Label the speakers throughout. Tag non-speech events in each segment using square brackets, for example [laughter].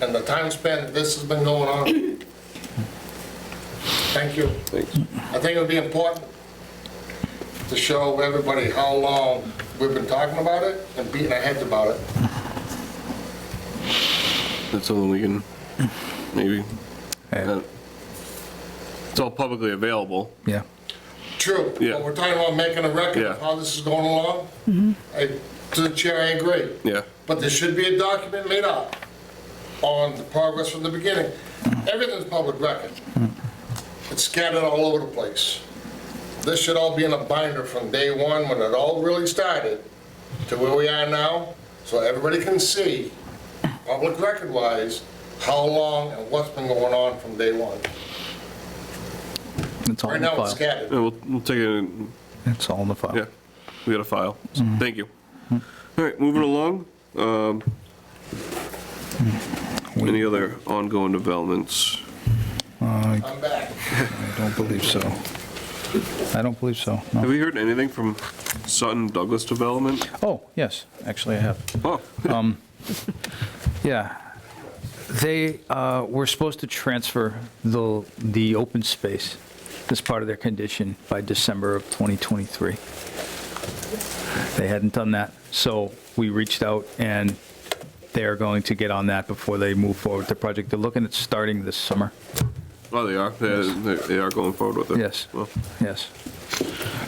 Speaker 1: and the time spent, this has been going
Speaker 2: [coughs]
Speaker 1: on. Thank you. I think it would be important to show everybody how long we've been talking about it and beating our heads about it.
Speaker 2: That's something we can, maybe. uh,
Speaker 3: Yeah.
Speaker 2: It's all publicly available.
Speaker 3: Yeah.
Speaker 1: True,
Speaker 2: Yeah.
Speaker 1: but we're talking about making a record of
Speaker 2: Yeah. Mm-hmm.
Speaker 1: how this is going along. I- To the chair, I agree.
Speaker 2: Yeah.
Speaker 1: But there should be a document made up on the progress from the beginning. Everything's public record. It's scattered all over the place. This should all be in a binder from day one, when it all really started, to where we are now, so everybody can see, public record-wise, how long and what's been going on from day one.
Speaker 3: It's all
Speaker 1: Right
Speaker 3: in the
Speaker 1: now, it's
Speaker 3: file.
Speaker 1: scattered.
Speaker 2: And we'll, we'll take it,
Speaker 3: It's all in the file.
Speaker 2: yeah, we got a file. So,
Speaker 3: Mm-hmm.
Speaker 2: Thank you. All right, moving along. Um,
Speaker 3: Mm-hmm.
Speaker 2: Any other ongoing developments?
Speaker 1: I'm back.
Speaker 3: Uh, I don't believe so. I don't believe so.
Speaker 2: Have
Speaker 3: No.
Speaker 2: we heard anything from Sutton Douglas Development?
Speaker 3: Oh, yes, actually I have.
Speaker 2: Oh,
Speaker 3: Yeah. They uh, were supposed to transfer the, the open space as part of their condition by December of 2023. They hadn't done that, so we reached out and they're going to get on that before they move forward with the project. They're looking at starting this summer.
Speaker 2: oh, they are. They- They they are going forward with it.
Speaker 3: Yes.
Speaker 2: Well,
Speaker 3: Yes.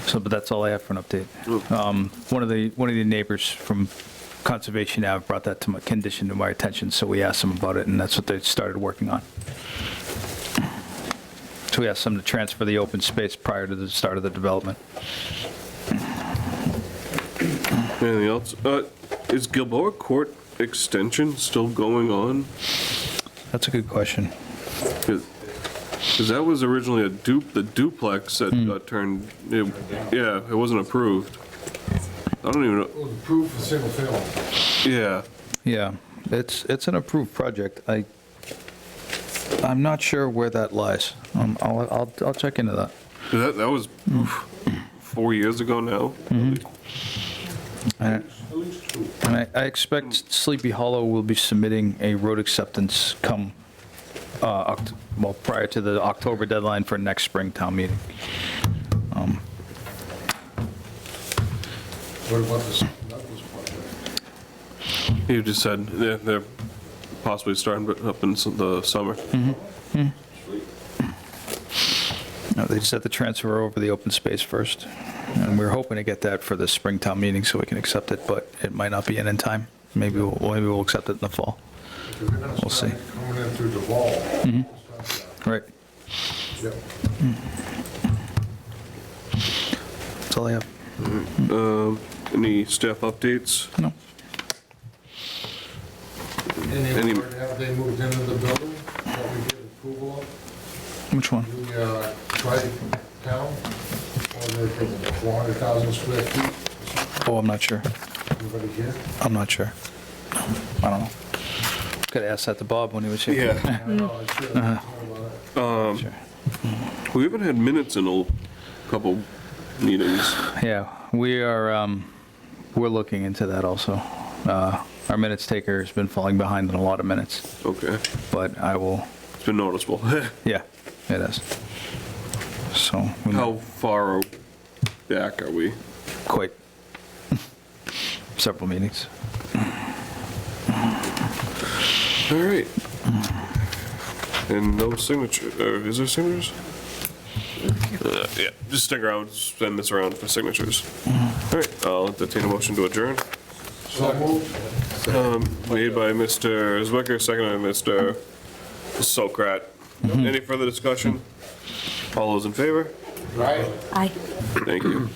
Speaker 3: So, but that's all I have for an update.
Speaker 2: Mm.
Speaker 3: Um, One of the, one of the neighbors from Conservation Ave brought that to my, condition to my attention, so we asked them about it, and that's what they started working on. So we asked them to transfer the open space prior to the start of the development.
Speaker 2: Anything else? Uh, Is Gilboa Court Extension still going on?
Speaker 3: That's a good question.
Speaker 2: Because that was originally a dupe, the duplex that got turned, it- yeah, it wasn't approved. I don't even, know.
Speaker 1: It was approved for single family.
Speaker 2: yeah,
Speaker 3: Yeah, it's, it's an approved project. I, I'm not sure where that lies. Um, I'll, I'll, I'll check into that.
Speaker 2: that, that was oof, four years ago now.
Speaker 3: And I I expect Sleepy Hollow will be submitting a road acceptance come, uh, Oct- well, prior to the October deadline for next spring town meeting.
Speaker 1: What about this, Douglas project?
Speaker 2: You just said they're, they're possibly starting up in s- the summer.
Speaker 3: No, They set the transfer over the open space first, and we're hoping to get that for the spring town meeting so we can accept it, but it might not be in in time. Maybe we'll, maybe we'll accept it in the fall.
Speaker 1: If you're gonna
Speaker 3: We'll
Speaker 1: start
Speaker 3: see.
Speaker 1: Coming in through the wall.
Speaker 3: Right,
Speaker 1: Yep.
Speaker 3: that's all I have.
Speaker 2: Any staff updates?
Speaker 3: No,
Speaker 2: Any-
Speaker 1: Any, have they moved into the building that we get approval of?
Speaker 3: which one?
Speaker 1: The, uh, tri-town, or they think it's 400,000 square feet?
Speaker 3: Oh, I'm not sure.
Speaker 1: Anybody here?
Speaker 3: I'm not sure. I don't know. Could have asked that to Bob when he was here.
Speaker 1: I don't know, uh, I uh, should have thought about it.
Speaker 3: Sure.
Speaker 2: We haven't had minutes in a couple meetings.
Speaker 3: Yeah, we are, um, we're looking into that also. Uh, Our minutes taker has been falling behind in a lot of minutes,
Speaker 2: Okay,
Speaker 3: but I will,
Speaker 2: it's been noticeable. [laughs]
Speaker 3: yeah, it is. So, we
Speaker 2: How far back are we?
Speaker 3: quite [laughs] several meetings.
Speaker 2: All right. And no signature, or is there signatures? Uh, Yeah, just stick around, send this around for signatures. All right, I'll entertain a motion to adjourn.
Speaker 1: So moved.
Speaker 2: Made by Mr. Zwicker, seconded by Mr. Sokrat. Any further discussion? All those in favor?
Speaker 1: Right?
Speaker 4: Aye.
Speaker 2: Thank you.